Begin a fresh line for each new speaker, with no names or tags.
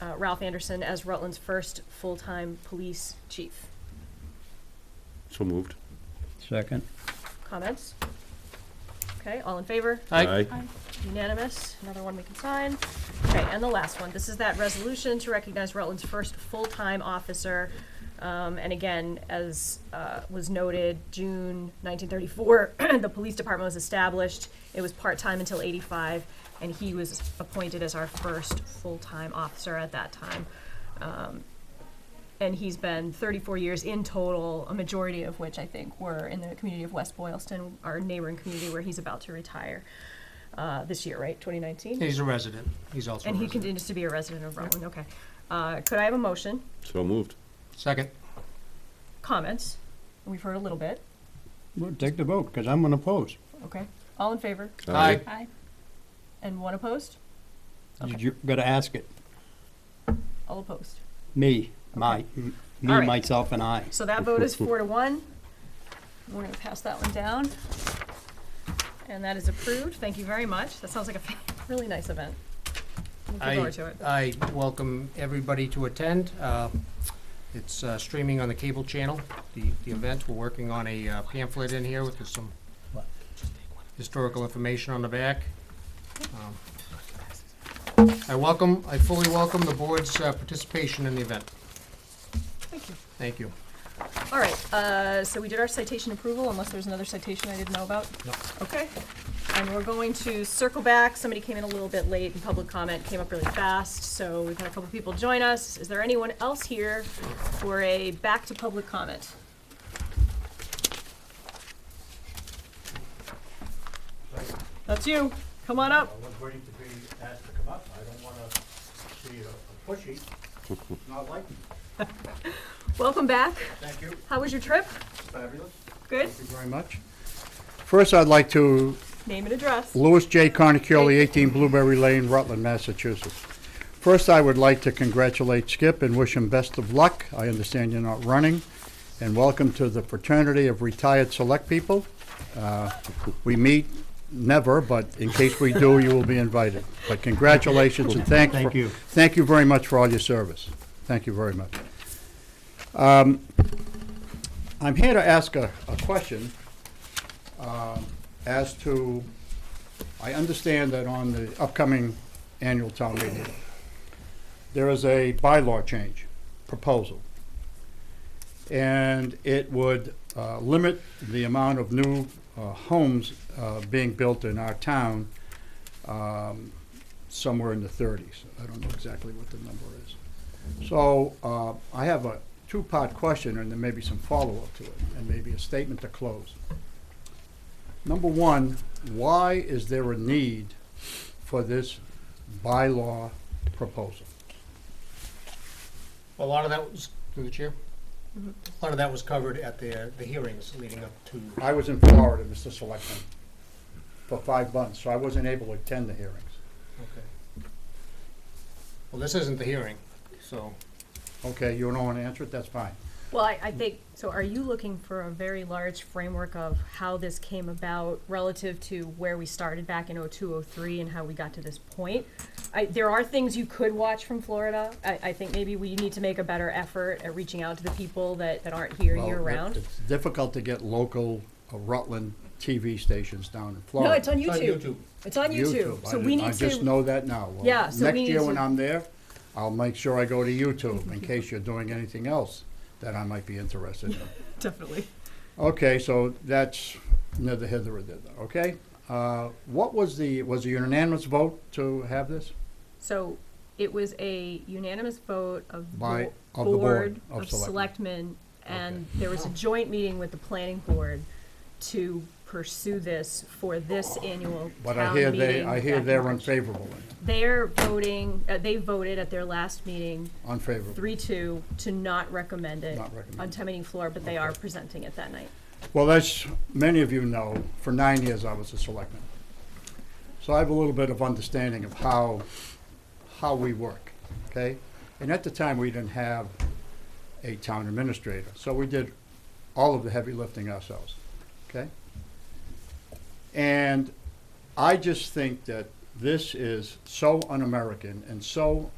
uh, Ralph Anderson as Rutland's first full-time police chief.
So moved.
Second.
Comments? Okay, all in favor?
Aye.
Unanimous, another one we can sign. Okay, and the last one, this is that resolution to recognize Rutland's first full-time officer. Um, and again, as, uh, was noted, June nineteen thirty-four, the police department was established. It was part-time until eighty-five, and he was appointed as our first full-time officer at that time. Um, and he's been thirty-four years in total, a majority of which I think were in the community of West Boylston, our neighboring community where he's about to retire uh, this year, right, 2019?
He's a resident. He's also a
And he
resident.
continues to be a resident of Rutland, okay. Uh, Could I have a motion,
So moved.
Second.
comments? We've heard a little bit,
Well, take the vote, because I'm going to oppose.
okay? All in favor?
Aye.
Aye.
And one opposed?
You gotta ask it.
All opposed.
Me, my, m- me,
All right.
myself, and I.
So that vote is four to one. We're gonna pass that one down. And that is approved, thank you very much. That sounds like a fa- really nice event. Looking
I,
forward to it.
I welcome everybody to attend. Uh, It's uh, streaming on the cable channel, the, the event. We're working on a uh, pamphlet in here with some historical information on the back. Um, I welcome, I fully welcome the board's uh, participation in the event.
Thank you.
Thank you.
All right, uh, so we did our citation approval, unless there's another citation I didn't know about?
No.
Okay, and we're going to circle back, somebody came in a little bit late, and public comment came up really fast, so we've had a couple people join us. Is there anyone else here for a back to public comment? That's you, come on
I
up.
was waiting to be asked to come up. I don't want to be a a pushy. Not like, me.
Welcome back,
thank you,
how was your trip?
fabulous.
Good?
Thank you very much. First, I'd like to,
Name and address.
Louis J. Carnacioli, 18 Blueberry Lane, Rutland, Massachusetts. First, I would like to congratulate Skip and wish him best of luck. I understand you're not running. And welcome to the fraternity of retired select people. Uh, We meet never, but in case we do, you will be invited. But congratulations and thanks.
Thank
for-
you.
Thank you very much for all your service. Thank you very much. Um, I'm here to ask a, a question um, as to, I understand that on the upcoming annual town meeting, there is a bylaw change proposal. And it would uh, limit the amount of new uh, homes uh, being built in our town um, somewhere in the 30s. I don't know exactly what the number is. So uh, I have a two-part question, and then maybe some follow-up to it, and maybe a statement to close. Number one, why is there a need for this bylaw proposal?
A lot of that was, through the chair,
Mm-hmm.
a lot of that was covered at the, the hearings leading up to.
I was in Florida, Mr. Selectman, for five months, so I wasn't able to attend the hearings.
Okay. Well, this isn't the hearing, so.
Okay, you don't want to answer it, that's fine.
Well, I, I think, so are you looking for a very large framework of how this came about relative to where we started back in oh two, oh three, and how we got to this point? I, there are things you could watch from Florida. I, I think maybe we need to make a better effort at reaching out to the people that, that aren't here
Well, it-
year-round.
It's difficult to get local uh, Rutland TV stations down in Florida.
No, it's on YouTube.
YouTube.
It's on YouTube,
I
so
didn't-
we need
I just
to,
know that now. Well,
Yeah, so we need
Next year
to-
when I'm there, I'll make sure I go to YouTube in case you're doing anything else that I might be interested in.
definitely.
Okay, so that's neither hither nor thither, okay? Uh, What was the, was it unanimous vote to have this?
So it was a unanimous vote of the
By- of the
Board
Board of
of
Selectmen.
Selectmen, and there was a joint meeting with the planning board to pursue this for this annual
But I
town
hear
meeting.
they, I
back
hear
in
they're
March.
unfavorable, in it,
They're voting, uh, they voted at their last meeting,
unfavorable.
three-two, to not recommend it
Not recommend.
on town meeting floor, but they are presenting it that night.
Well, as many of you know, for nine years I was a selectman. So I have a little bit of understanding of how, how we work, okay? And at the time, we didn't have a town administrator, so we did all of the heavy lifting ourselves, okay? And I just think that this is so un-American and so